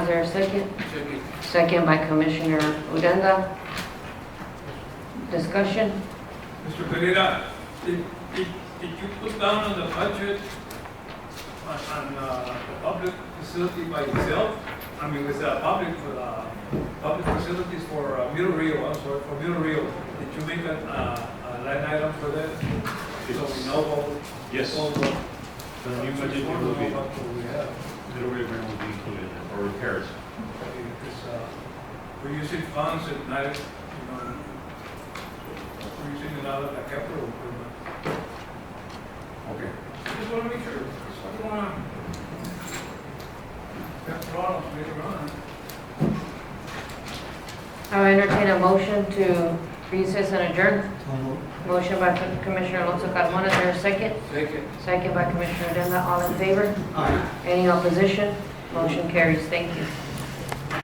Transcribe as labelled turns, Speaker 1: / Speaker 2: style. Speaker 1: there a second? Second by Commissioner Odena. Discussion?
Speaker 2: Mr. Pereira, did, did, did you put down on the budget on, on, uh, the public facility by itself? I mean, with the public, uh, public facilities for uh, Middle Rio, I'm sorry, for Middle Rio, did you make an, uh, a line item for that? So we know what,
Speaker 3: Yes,
Speaker 2: what, what.
Speaker 3: the new budget there will be,
Speaker 2: What we have,
Speaker 3: middle rear grant will be included, in it, or repairs.
Speaker 2: because, uh, we're using funds and not, you know, we're using it out of the capital improvement.
Speaker 3: Okay.
Speaker 2: Just want to make sure, I don't want to have problems later on.
Speaker 1: I'll entertain a motion to recess and adjourn. Motion by Commissioner Alonso Carmona, is there a second?
Speaker 2: Second.
Speaker 1: Second by Commissioner Odena, all in favor? Any opposition? Motion carries, thank you.